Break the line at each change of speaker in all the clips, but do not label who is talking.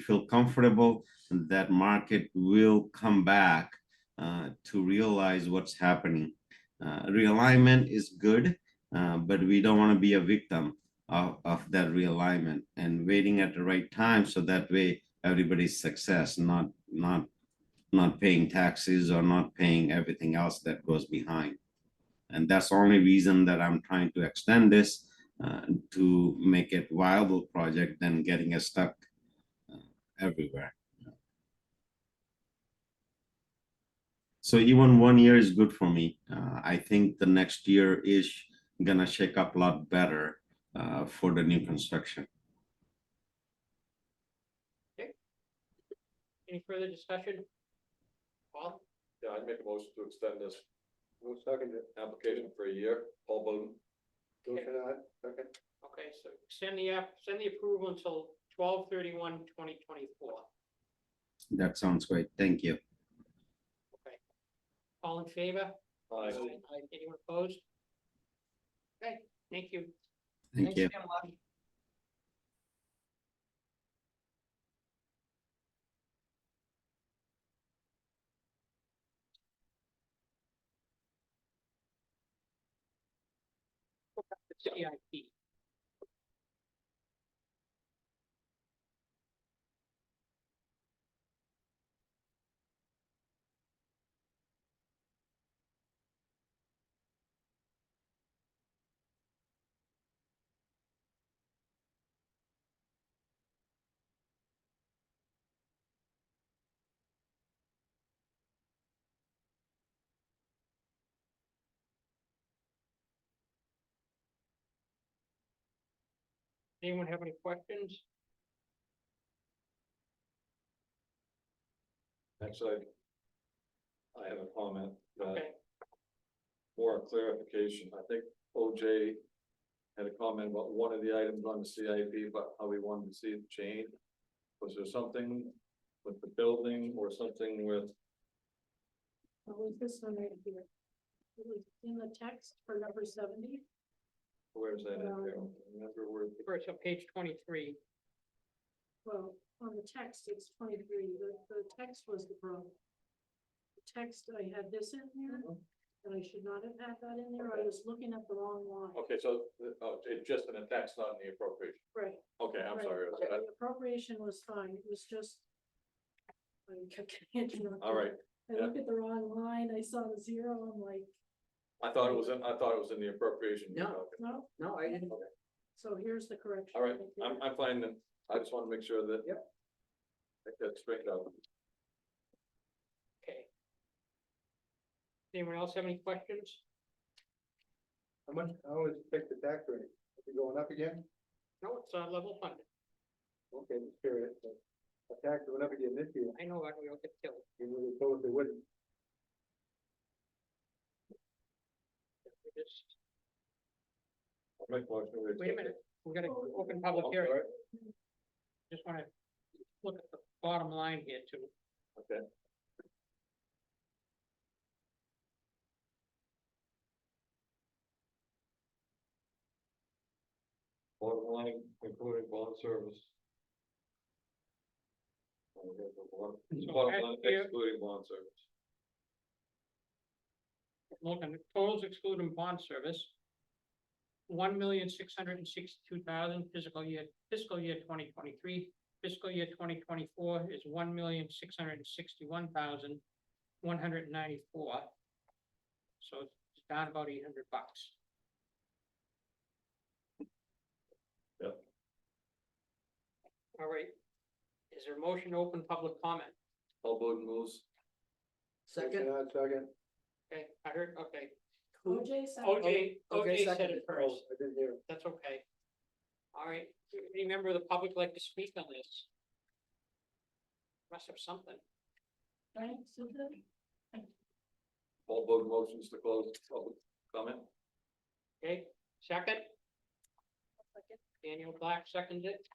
feel comfortable that market will come back uh, to realize what's happening. Uh, realignment is good, uh, but we don't want to be a victim of, of that realignment and waiting at the right time so that way everybody's success, not not not paying taxes or not paying everything else that goes behind. And that's the only reason that I'm trying to extend this uh, to make it viable project than getting us stuck uh, everywhere. So even one year is good for me. Uh, I think the next year is gonna shake up a lot better uh, for the new construction.
Any further discussion? Paul,
Yeah, I'd make a motion to extend this. Who seconded? Application for a year, Paul Bowden.
Motion,
second.
okay, so send the app, send the approval until 2024.
That sounds great. Thank you.
All in favor?
Aye.
Aye. Anyone opposed? Okay, thank you.
Thank you.
The CIP. Anyone have any questions?
Actually, I have a comment, uh,
Okay,
more clarification. I think OJ had a comment about one of the items on the CIP, but how we wanted to see it changed. Was there something with the building or something with,
What was this one right here? It was in the text for number seventy.
where's that at? Carol? Remember where?
first on page twenty-three.
Well, on the text, it's twenty-three. The, the text was the problem. The Text, I had this in here,
Mm-hmm.
and I should not have had that in there. I was looking at the wrong line.
Okay, so, uh, oh, it's just an attacks, not in the appropriation.
Right.
Okay, I'm
right.
sorry. I was- I-
The appropriation was fine. It was just. I kept getting interrupted.
All right,
I looked at the wrong line. I saw the zero. I'm like,
I thought it was in, I thought it was in the appropriation.
No.
no.
No, I didn't.
So here's the correction.
All right,
Thank you.
I'm, I'm fine then. I just want to make sure that. Yep. That's straight out.
Okay. Anyone else have any questions?
How much, I always pick the tax rate, is it going up again?
No, it's uh level funded.
Okay, just curious, but the tax went up again this year,
I know, I we don't get killed.
you know, they told us they wouldn't.
We just-
I'll make a motion to
Wait a
accept
minute,
it.
we gotta
Oh,
open
I'm
public hearing.
sorry.
Just wanna look at the bottom line here too.
Okay. Bottom line, including bond service. Oh, we got the bottom-
So
Bottom
that's
line
here.
excluding bond service.
Looking, at totals excluding bond service. One million, six hundred and sixty-two thousand fiscal year, fiscal year twenty twenty-three, fiscal year twenty twenty-four is one million, six hundred and sixty-one thousand, one hundred and ninety-four. So it's down about eight hundred bucks.
Yep.
All right. Is there a motion to open public comment?
All Bowden moves.
Second, uh, Second,
Okay, I heard, okay.
OJ said.
OJ, OJ said
seconded.
it first.
Oh, I didn't hear, it.
That's okay. All right, any member of the public like to speak on this? Must have something.
Right, so then.
All Bowden motions to close public comment.
Okay, second, Daniel Black seconded it.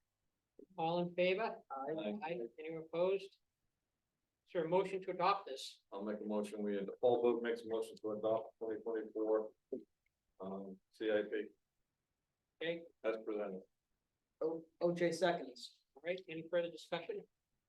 All in favor?
Aye.
Aye. Anyone opposed? Is there a motion to adopt this?
I'll make a motion, we, Paul Booth makes a motion to adopt twenty twenty-four, um, CIP
Okay,
as presented.
OJ seconds. All right, any further discussion?